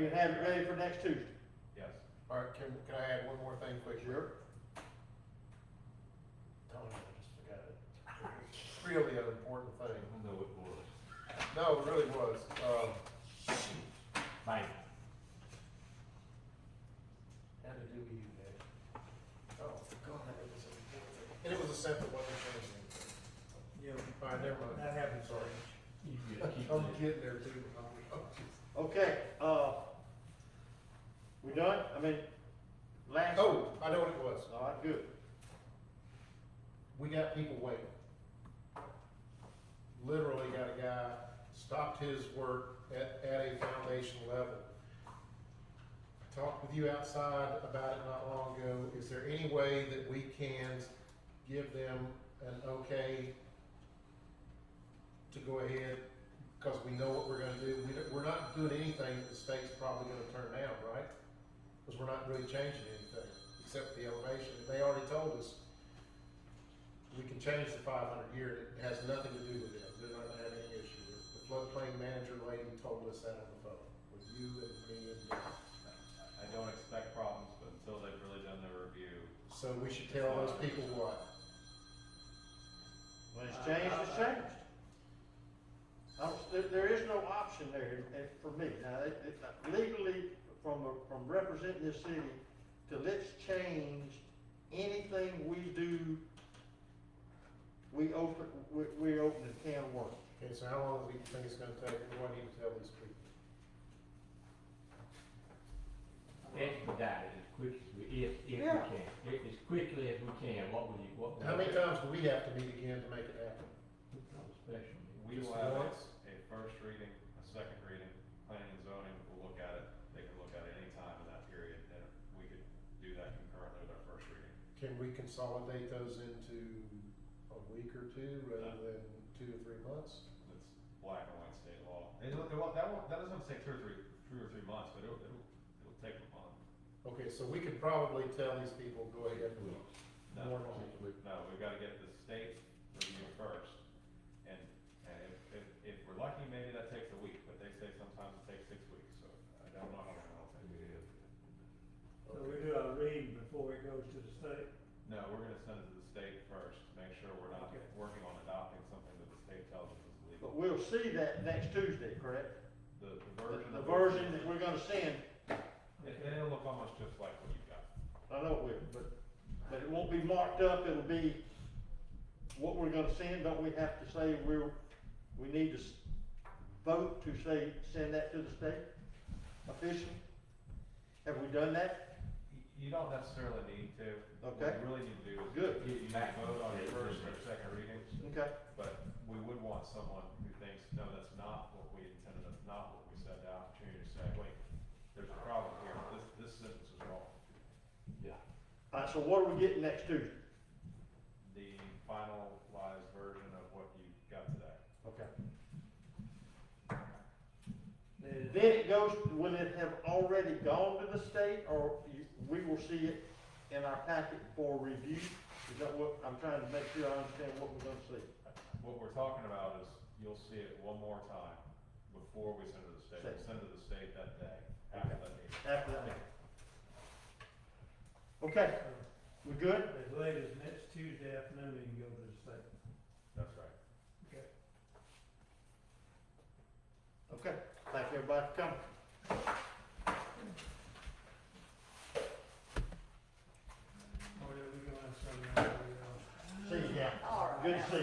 You can have it ready for next Tuesday. Yes. All right, can, can I add one more thing quick here? Tony, I just forgot it. Really an important thing. I know it was. No, it really was. Um, Mike. had to do with you, Dave. Oh, God, that was an important thing. And it was a set that wasn't changing. Yeah, All right, never mind. that happens, sorry. You I'm getting there too. Oh, Okay, uh, we done? I mean, last. Oh, I know what it was. All right, good. We got people waiting. Literally got a guy, stopped his work at, at a foundation level. I Talked with you outside about it not long ago. Is there any way that we can give them an okay to go ahead? Because we know what we're gonna do. We, don't- we're not doing anything that the state's probably gonna turn down, right? Because we're not really changing anything, except the elevation. They already told us we can change the five hundred year, it has nothing to do with it, they're not gonna have any issue with it. The floodplain manager lady told us that on the phone, with you and me and them. I don't expect problems, but until they've really done their review. So we should tell those people what? When it's changed, it's changed. I don't, there, there is no option there, and for me, now, it, it, legally, from, a- from representing this city, to let's change anything we do, we open, we, we open a can of worms. Okay, so how long do you think it's gonna take, what do I need to tell these people? That's about it, as quick as we, if, if we Yeah. can, If- as quickly as we can, what would you, what would? How you many do? times do we have to meet again to make it happen? Not a special meeting. We Just will have once? a first reading, a second reading, planning and zoning will look at it. They can look at it any time in that period, and we could do that concurrently with our first reading. Can we consolidate those into a week or two, rather than two or three months? It's black and white state law. It, don't- it won't, that won't, that doesn't take two or three, two or three months, but it'll, it'll, it'll take a month. Okay, so we could probably tell these people, go ahead and No, More than Six weeks. no, we've gotta get the state review first, and, and if, if, if we're lucky, maybe that takes a week, but they say sometimes it takes six weeks, so I don't know how long it'll take. So we do our reading before it goes to the state. No, we're gonna send it to the state first, make sure we're not Okay. working on adopting something that the state tells us is But illegal. we'll see that next Tuesday, correct? The, the The version. the of- version that we're gonna send, It, it'll look almost just like what you've got. I know it will, but, but it won't be marked up, it'll be what we're gonna send, don't we have to say we're, we need to s- vote to say, send that to the state officially? Have we done that? You- You don't necessarily need to. What Okay. you really need to do is. Good. You, you can vote on your first or second reading, Okay, but we would want someone who thinks, no, that's not what we intended, that's not what we said, the opportunity to say, wait, there's a problem here, this, this sentence is wrong. Yeah. alright, so what are we getting next Tuesday? The finalized version of what you got today. Okay. Then- Then it goes, will it have already gone to the state, or you, we will see it in our packet for review? Is that what, I'm trying to make sure I understand what we're gonna see. What we're talking about is, you'll see it one more time before we send it to the state, we'll send it to the state that day, after that meeting. after that meeting. Okay, we good? Uh, As late as next Tuesday afternoon, you can go to the state. That's right. Okay, thank you everybody for coming. Or are we going to send them out? See you, yeah. All right. Good to see you.